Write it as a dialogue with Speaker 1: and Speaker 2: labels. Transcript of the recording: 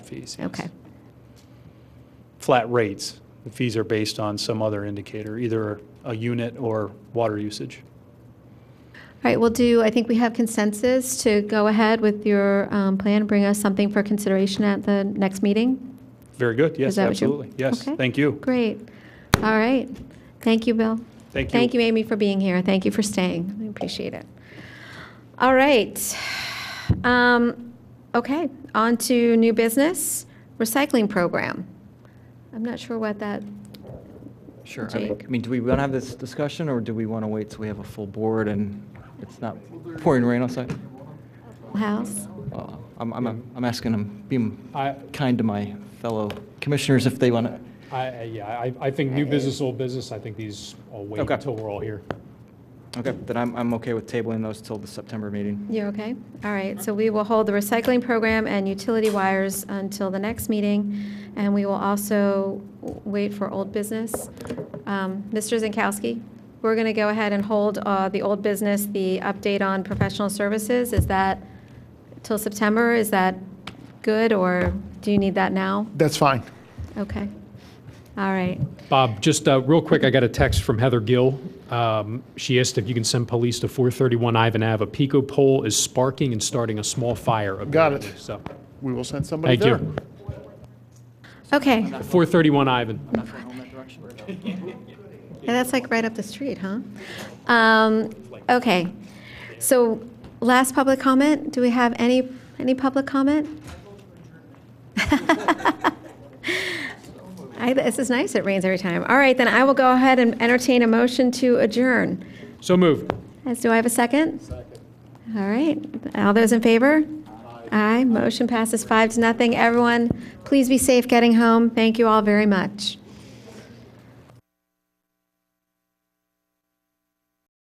Speaker 1: fees. yes.
Speaker 2: Okay.
Speaker 1: Flat rates. The fees are based on some other indicator, either a unit or water usage.
Speaker 2: All right, we'll do, I think we have consensus to go ahead with your um, plan, bring us something for consideration at the next meeting?
Speaker 1: Very good, yes,
Speaker 2: Is that what you-
Speaker 1: absolutely. Yes,
Speaker 2: Okay.
Speaker 1: thank you.
Speaker 2: Great. All right. Thank you, Bill.
Speaker 1: Thank you.
Speaker 2: Thank you, Amy, for being here. Thank you for staying. I appreciate it. All right. Um, Okay, on to new business, recycling program. I'm not sure what that,
Speaker 3: Sure. I mean-
Speaker 2: Jake.
Speaker 3: I mean, do we want to have this discussion, or do we want to wait till we have a full board and it's not pouring rain outside?
Speaker 2: house?
Speaker 3: Uh, I'm, I'm, I'm asking, I'm being
Speaker 4: I,
Speaker 3: kind to my fellow commissioners if they want to.
Speaker 4: I, yeah, I, I think
Speaker 2: Uh,
Speaker 4: new business, old business, I think these all wait
Speaker 3: Okay.
Speaker 4: until we're all here.
Speaker 3: Okay, then I'm, I'm okay with tabling those till the September meeting.
Speaker 2: You're okay? All right, so we will hold the recycling program and utility wires until the next meeting, and we will also w- wait for old business. Um, Mr. Zinkowski, we're going to go ahead and hold uh, the old business, the update on professional services. Is that till September? Is that good, or do you need that now?
Speaker 5: That's fine.
Speaker 2: Okay. All right.
Speaker 4: Bob, just uh, real quick, I got a text from Heather Gill. Um, She asked if you can send police to 431 Ivan Ave. A Pico pole is sparking and starting a small fire.
Speaker 5: Got
Speaker 4: apparently,
Speaker 5: it.
Speaker 4: So,
Speaker 5: We will send somebody
Speaker 4: thank
Speaker 5: there.
Speaker 4: you.
Speaker 2: Okay,
Speaker 4: 431 Ivan.
Speaker 3: I'm not going home that direction.
Speaker 2: Yeah, that's like right up the street, huh? Um, Okay, so last public comment, do we have any, any public comment? I, this is nice, it rains every time. All right, then I will go ahead and entertain a motion to adjourn.
Speaker 4: So moved.
Speaker 2: As, do I have a second? Second. All right, all those in favor? Aye, motion passes five to nothing. Everyone, please be safe getting home. Thank you all very much.